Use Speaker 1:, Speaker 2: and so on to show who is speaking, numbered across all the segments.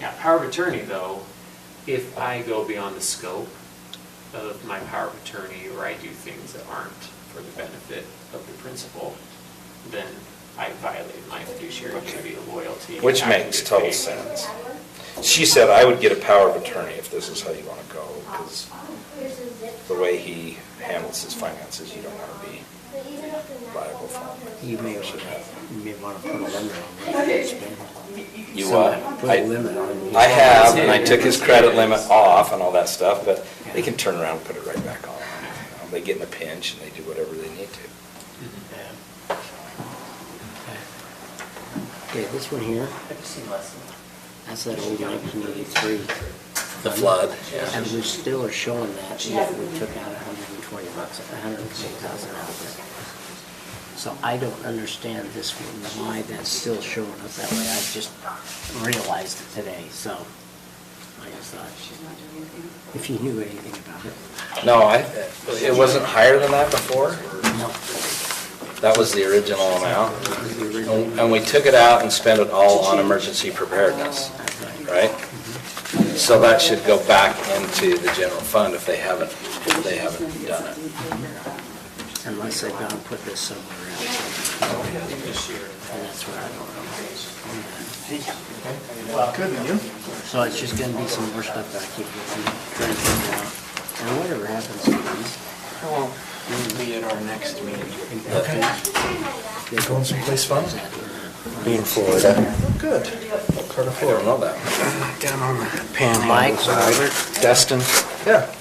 Speaker 1: Yeah, power of attorney, though, if I go beyond the scope of my power of attorney, or I do things that aren't for the benefit of the principal, then I violate my fiduciary duty of loyalty.
Speaker 2: Which
Speaker 1: and act in
Speaker 2: makes
Speaker 1: good
Speaker 2: total
Speaker 1: faith.
Speaker 2: sense. She said, I would get a power of attorney if this is how you want to go, because the way he handles his finances, you don't want to be liable for him.
Speaker 3: You may
Speaker 2: Should
Speaker 3: want,
Speaker 2: have.
Speaker 3: you may want to put a limit on what you spend.
Speaker 2: You
Speaker 3: So,
Speaker 2: what?
Speaker 3: Put
Speaker 2: I-
Speaker 3: a limit on.
Speaker 2: I have, and I took his credit limit off and all that stuff, but they can turn around and put it right back on. You know, They get in a pinch and they do whatever they need to.
Speaker 3: Yeah. Okay, this one here, that's that old nineteen eighty-three.
Speaker 2: The flood, yeah.
Speaker 3: And we still are showing that, yet we took out hundred and twenty bucks, hundred and six thousand out of it. So I don't understand this one, why that's still showing up that way. I just realized it today, so I just thought, if you knew anything about it.
Speaker 2: No, I, it wasn't higher than that before.
Speaker 3: No.
Speaker 2: That was the original amount. Oh, And- And we took it out and spent it all on emergency preparedness, right? So that should go back into the general fund if they haven't, if they haven't done it.
Speaker 3: Unless they've gone and put this somewhere else. And that's where I don't
Speaker 4: Couldn't you?
Speaker 3: know. So it's just gonna be some more stuff that I keep looking, trying to figure out. And whatever happens to these,
Speaker 4: Well, we'll be at our next meeting.
Speaker 5: Going someplace fun? Being Florida.
Speaker 4: Good.
Speaker 2: I don't know that.
Speaker 4: Down on the
Speaker 3: Mike,
Speaker 4: panhandle
Speaker 3: Robert,
Speaker 4: side. Dustin?
Speaker 5: Yeah.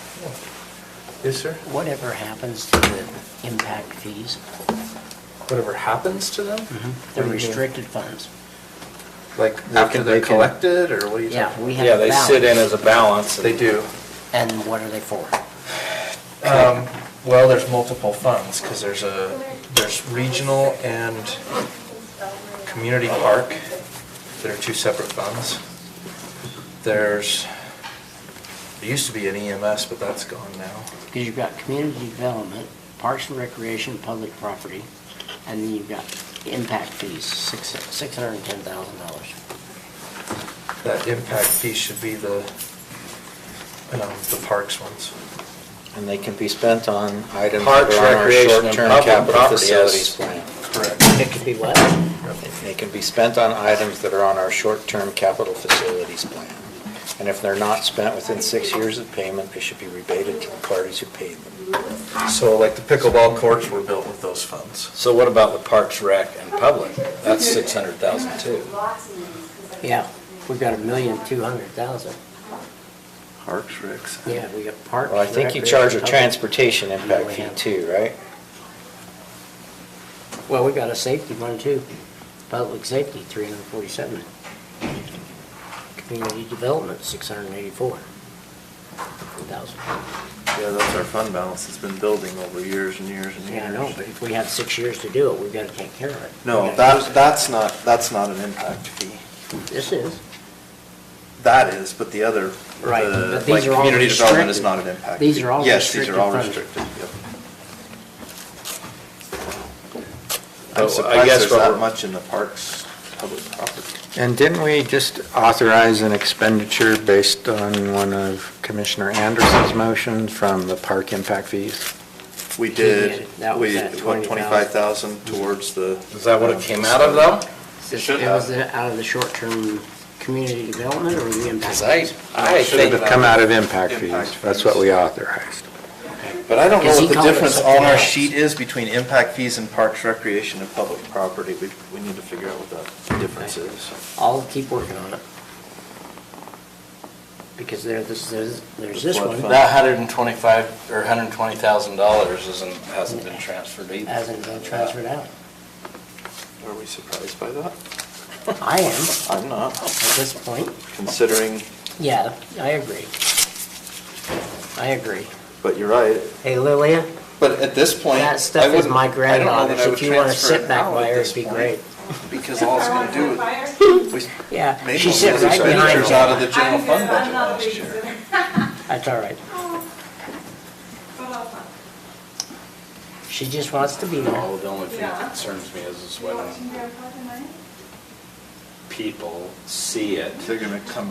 Speaker 5: Yes, sir.
Speaker 3: whatever happens to the impact fees,
Speaker 5: Whatever happens to them?
Speaker 3: the
Speaker 5: What do you mean?
Speaker 3: restricted funds.
Speaker 5: Like
Speaker 2: After
Speaker 5: after
Speaker 2: they
Speaker 5: they're
Speaker 2: can-
Speaker 5: collected or what do you
Speaker 3: Yeah,
Speaker 5: talking?
Speaker 3: we
Speaker 2: Yeah,
Speaker 3: have
Speaker 2: they sit in as
Speaker 3: balance.
Speaker 2: a balance. and-
Speaker 5: They do.
Speaker 3: And what are they for?
Speaker 5: Um, Well, there's multiple funds because there's a, Uh, there's regional and community park that are two separate funds. There's, there used to be an EMS, but that's gone now.
Speaker 3: Because you've got community development, parks and recreation, public property, and then you've got impact fees, six, six hundred and ten thousand dollars.
Speaker 5: That impact fee should be the, um, the parks ones.
Speaker 6: And they can be spent on items that
Speaker 2: Parks,
Speaker 6: are on our
Speaker 2: recreation, and
Speaker 6: short-term
Speaker 2: public
Speaker 6: capital
Speaker 2: property, yes.
Speaker 6: facilities plan.
Speaker 5: Correct.
Speaker 3: It could be what?
Speaker 6: They can be spent on items that are on our short-term capital facilities plan. And if they're not spent within six years of payment, they should be rebated to the parties who paid them.
Speaker 5: So like the pickleball courts were built with those funds.
Speaker 2: So what about the Parks Rec and Public? That's 600,000 too.
Speaker 3: Yeah, we've got a million two hundred thousand.
Speaker 5: Parks, Ricks.
Speaker 3: Yeah, we got parks.
Speaker 6: Well, I think you charge a transportation impact fee too, right?
Speaker 3: Well, we got a safety one too. Public safety, three hundred and forty-seven. Community development, six hundred and eighty-four thousand.
Speaker 4: Yeah, that's our fund balance. It's been building over years and years and years.
Speaker 3: Yeah, I know, but if we have six years to do it, we've got to take care of it.
Speaker 4: No,
Speaker 3: We gotta use
Speaker 4: that,
Speaker 3: it.
Speaker 4: that's not, that's not an impact fee.
Speaker 3: This is.
Speaker 4: That is, but the other,
Speaker 3: Right,
Speaker 4: the,
Speaker 3: but these
Speaker 4: like,
Speaker 3: are all
Speaker 4: community development is
Speaker 3: restricted.
Speaker 4: not an impact.
Speaker 3: These
Speaker 4: fee.
Speaker 3: are all
Speaker 4: Yes, these are all
Speaker 3: restricted
Speaker 4: restricted, yep.
Speaker 2: Oh, I
Speaker 4: I'm surprised
Speaker 2: guess
Speaker 4: there's
Speaker 2: what
Speaker 4: that
Speaker 2: we're-
Speaker 4: much in the parks, public property.
Speaker 6: And didn't we just authorize an expenditure based on one of Commissioner Anderson's motions from the park impact fees?
Speaker 4: We
Speaker 3: did.
Speaker 4: did,
Speaker 3: That was
Speaker 4: we
Speaker 3: that
Speaker 4: put 25,000 towards the.
Speaker 2: Is that what it came out of though?
Speaker 3: It
Speaker 4: Should
Speaker 3: was
Speaker 4: have.
Speaker 3: the- out of the short-term community development or the impact?
Speaker 2: Because I, I
Speaker 4: Should have
Speaker 2: think,
Speaker 6: Should have come out of impact
Speaker 4: Impact
Speaker 6: fees. That's what we authorized.
Speaker 4: But I don't know
Speaker 3: Because he
Speaker 4: what the
Speaker 3: called it
Speaker 4: difference
Speaker 3: something
Speaker 4: on our
Speaker 3: else.
Speaker 4: sheet is between impact fees and parks, recreation, and public property. We, we need to figure out what that difference is.
Speaker 3: I'll keep working on it. Because there, this, there's, there's this
Speaker 4: Flood
Speaker 3: one.
Speaker 4: fund.
Speaker 2: that hundred and twenty-five, or hundred and twenty thousand dollars isn't, hasn't been transferred either.
Speaker 3: Hasn't been transferred out.
Speaker 4: Are we surprised by that?
Speaker 3: I am, at
Speaker 4: I'm not,
Speaker 3: this point.
Speaker 4: considering,
Speaker 3: Yeah, I agree. I agree.
Speaker 4: but you're right.
Speaker 3: Hey, Lilia,
Speaker 4: But at this point,
Speaker 3: that
Speaker 4: I
Speaker 3: stuff is
Speaker 4: wouldn't-
Speaker 3: my
Speaker 4: I don't know that I
Speaker 3: granddaughter's.
Speaker 4: would
Speaker 3: If you want to
Speaker 4: transfer it
Speaker 3: sit back
Speaker 4: out
Speaker 3: by
Speaker 4: at
Speaker 3: her,
Speaker 4: this
Speaker 3: it'd be
Speaker 4: point,
Speaker 3: great.
Speaker 4: Because all it's going to do is, we
Speaker 3: Yeah,
Speaker 4: made
Speaker 3: she
Speaker 4: most
Speaker 3: sits
Speaker 4: of the
Speaker 3: right behind
Speaker 4: expenditures out of
Speaker 3: you.
Speaker 4: the general
Speaker 7: I'm good,
Speaker 4: fund
Speaker 7: I'm
Speaker 4: budget
Speaker 7: not a
Speaker 4: last
Speaker 7: big
Speaker 4: year.
Speaker 7: user.
Speaker 3: That's all right.
Speaker 7: But I'll find
Speaker 3: She just wants to be there.
Speaker 2: No, the only thing that concerns me is, is
Speaker 7: it. You want
Speaker 2: when
Speaker 7: to hear about the money?
Speaker 2: people see it.
Speaker 4: They're going to come